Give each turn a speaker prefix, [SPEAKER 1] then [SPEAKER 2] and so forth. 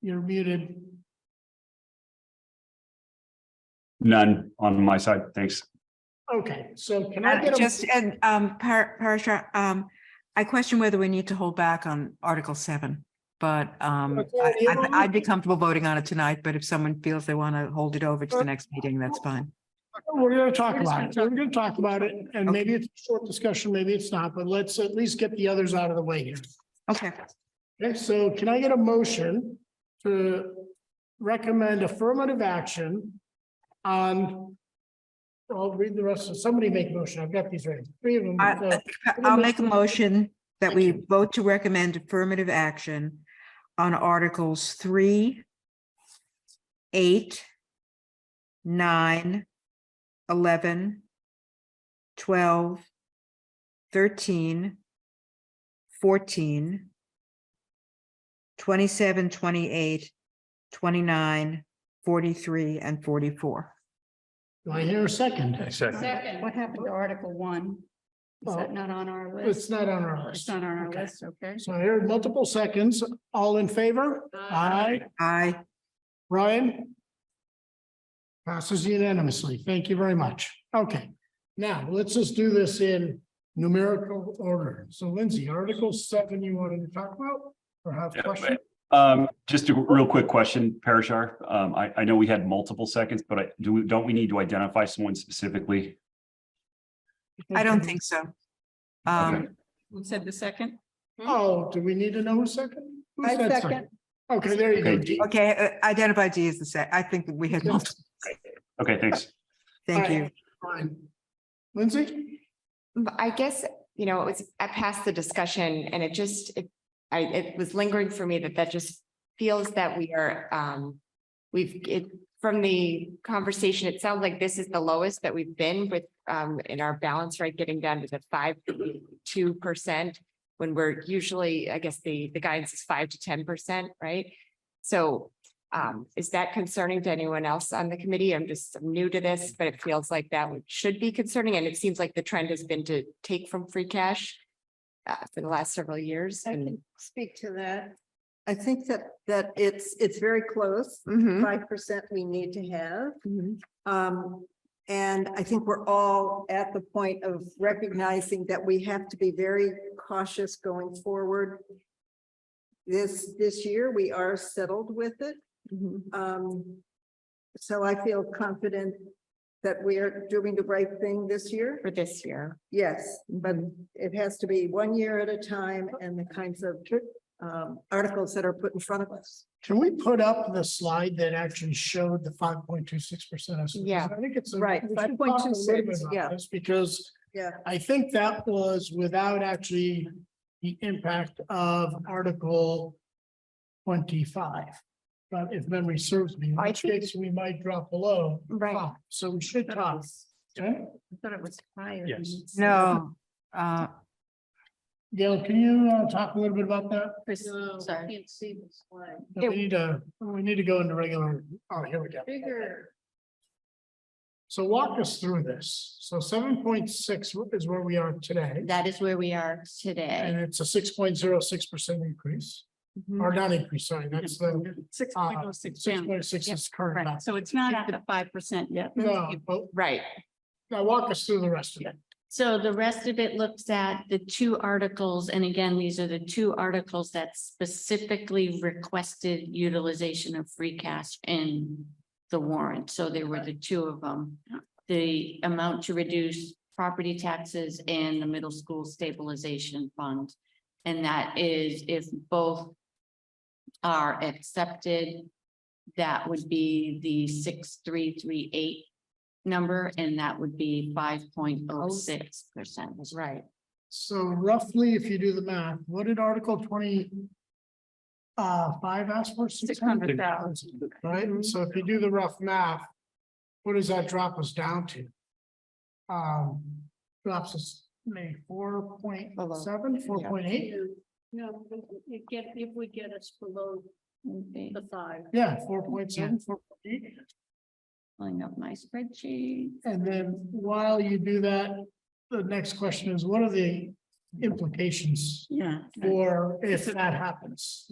[SPEAKER 1] You're muted.
[SPEAKER 2] None on my side, thanks.
[SPEAKER 1] Okay, so can I
[SPEAKER 3] Uh,
[SPEAKER 4] And
[SPEAKER 1] get
[SPEAKER 4] Uh, just,
[SPEAKER 1] a,
[SPEAKER 4] and, um, Par- Parashar, um, I question whether we need to hold back on Article seven. But, um,
[SPEAKER 1] Okay,
[SPEAKER 4] I-
[SPEAKER 1] you
[SPEAKER 4] I'd,
[SPEAKER 1] don't
[SPEAKER 4] I'd be
[SPEAKER 1] need-
[SPEAKER 4] comfortable voting on it tonight, but if someone feels they want to hold it over to the next meeting, that's fine.
[SPEAKER 1] we're gonna talk
[SPEAKER 3] We're just gonna
[SPEAKER 1] about it. We're gonna talk about it and maybe it's a short discussion, maybe it's not, but let's at least get the others out of the way here.
[SPEAKER 4] Okay,
[SPEAKER 1] Okay, so can I get a motion to recommend affirmative action on? I'll read the rest of, somebody make a motion. I've got these ready. Three of them.
[SPEAKER 4] I-
[SPEAKER 3] Uh,
[SPEAKER 1] so-
[SPEAKER 4] I'll make a motion that we vote to recommend affirmative action on Articles three, eight, nine, eleven, twelve, thirteen, fourteen, twenty-seven, twenty-eight, twenty-nine, forty-three, and forty-four.
[SPEAKER 1] Do I hear a second?
[SPEAKER 2] Second.
[SPEAKER 3] Second, what happened to Article one? Is that not on our
[SPEAKER 1] It's
[SPEAKER 3] list?
[SPEAKER 1] not on our
[SPEAKER 3] It's
[SPEAKER 1] list.
[SPEAKER 3] not on our
[SPEAKER 1] Okay.
[SPEAKER 3] list, okay?
[SPEAKER 1] So I heard multiple seconds. All in favor? Aye.
[SPEAKER 4] I,
[SPEAKER 1] Ryan? Passes unanimously. Thank you very much. Okay, now let's just do this in numerical order. So Lindsay, Article seven you wanted to talk about or have
[SPEAKER 2] Yeah,
[SPEAKER 1] question?
[SPEAKER 2] Um, just a real quick question, Parashar. Um, I, I know we had multiple seconds, but I, do, we don't we need to identify someone specifically?
[SPEAKER 4] I don't think so. Um,
[SPEAKER 3] Who said the second?
[SPEAKER 1] Oh, do we need to know a second? Who
[SPEAKER 3] I
[SPEAKER 1] said
[SPEAKER 3] second.
[SPEAKER 1] Okay, there you go.
[SPEAKER 2] Okay.
[SPEAKER 1] Dee.
[SPEAKER 4] okay, uh, identify D as the set. I think that we had multiple.
[SPEAKER 2] Okay, thanks.
[SPEAKER 4] Thank
[SPEAKER 1] Alright,
[SPEAKER 4] you.
[SPEAKER 1] fine. Lindsay?
[SPEAKER 5] But I guess, you know, it was, I passed the discussion and it just, it, I, it was lingering for me that that just feels that we are, um, we've, it, from the conversation, it sounds like this is the lowest that we've been with, um, in our balance rate, getting down to the five, two percent. When we're usually, I guess the, the guidance is five to ten percent, right? So, um, is that concerning to anyone else on the committee? I'm just I'm new to this, but it feels like that would- should be concerning, and it seems like the trend has been to take from free cash uh, for the last several years
[SPEAKER 3] I
[SPEAKER 5] and.
[SPEAKER 3] can speak to that.
[SPEAKER 6] I think that, that it's, it's very close,
[SPEAKER 5] Mhm,
[SPEAKER 6] five percent we need to have.
[SPEAKER 5] mhm.
[SPEAKER 6] Um, and I think we're all at the point of recognizing that we have to be very cautious going forward. This, this year, we are settled with it. Um, so I feel confident that we are doing the right thing this year.
[SPEAKER 5] For this year.
[SPEAKER 6] Yes, but it has to be one year at a time and the kinds of um, articles that are put in front of us.
[SPEAKER 1] Can we put up the slide that actually showed the five point two six percent?
[SPEAKER 5] Yeah.
[SPEAKER 1] I think it's. a-
[SPEAKER 6] Right,
[SPEAKER 1] we should talk a little
[SPEAKER 6] 5.26,
[SPEAKER 1] bit about
[SPEAKER 6] yeah.
[SPEAKER 1] this Because.
[SPEAKER 6] Yeah.
[SPEAKER 1] I think that was without actually the impact of Article twenty-five. But if memory serves me, in
[SPEAKER 5] I
[SPEAKER 1] which
[SPEAKER 5] think-
[SPEAKER 1] case we might drop below.
[SPEAKER 5] Right.
[SPEAKER 1] five. So we should
[SPEAKER 3] That
[SPEAKER 1] talk.
[SPEAKER 3] was-
[SPEAKER 1] Okay,
[SPEAKER 3] I thought it was higher. than
[SPEAKER 2] Yes.
[SPEAKER 3] this.
[SPEAKER 4] No, uh,
[SPEAKER 1] Gail, can you uh, talk a little bit about that?
[SPEAKER 3] Chris,
[SPEAKER 6] No.
[SPEAKER 3] sorry. Can't see the slide.
[SPEAKER 1] We
[SPEAKER 5] It-
[SPEAKER 1] need to, we need to go into regular, oh, here we go.
[SPEAKER 3] Bigger.
[SPEAKER 1] So walk us through this. So seven point six is where we are today,
[SPEAKER 3] That is where we are
[SPEAKER 1] and
[SPEAKER 3] today.
[SPEAKER 1] it's a six point zero six percent increase, or not increase, sorry, that's the
[SPEAKER 3] Six
[SPEAKER 1] uh,
[SPEAKER 5] Um,
[SPEAKER 1] six point six is current.
[SPEAKER 3] Right,
[SPEAKER 1] now.
[SPEAKER 3] so it's not at the five percent yet.
[SPEAKER 1] No, but
[SPEAKER 5] Right,
[SPEAKER 1] now walk us through the rest of it.
[SPEAKER 7] So the rest of it looks at the two articles, and again, these are the two articles that specifically requested utilization of free cash in the warrant, so there were the two of them. The amount to reduce property taxes and the middle school stabilization fund. And that is if both are accepted, that would be the six, three, three, eight number, and that would be five point oh six percent.
[SPEAKER 5] right.
[SPEAKER 1] So roughly, if you do the math, what did Article twenty uh, five ask for? Six hundred thousand. Right, so if you do the rough math, what does that drop us down to? Um, drops us maybe four point seven, four point eight,
[SPEAKER 7] No, it get, it would get us below the five.
[SPEAKER 1] yeah, four point seven, four point eight.
[SPEAKER 7] Pulling up my spreadsheet.
[SPEAKER 1] And then while you do that, the next question is, what are the implications
[SPEAKER 7] Yeah.
[SPEAKER 1] for if that happens?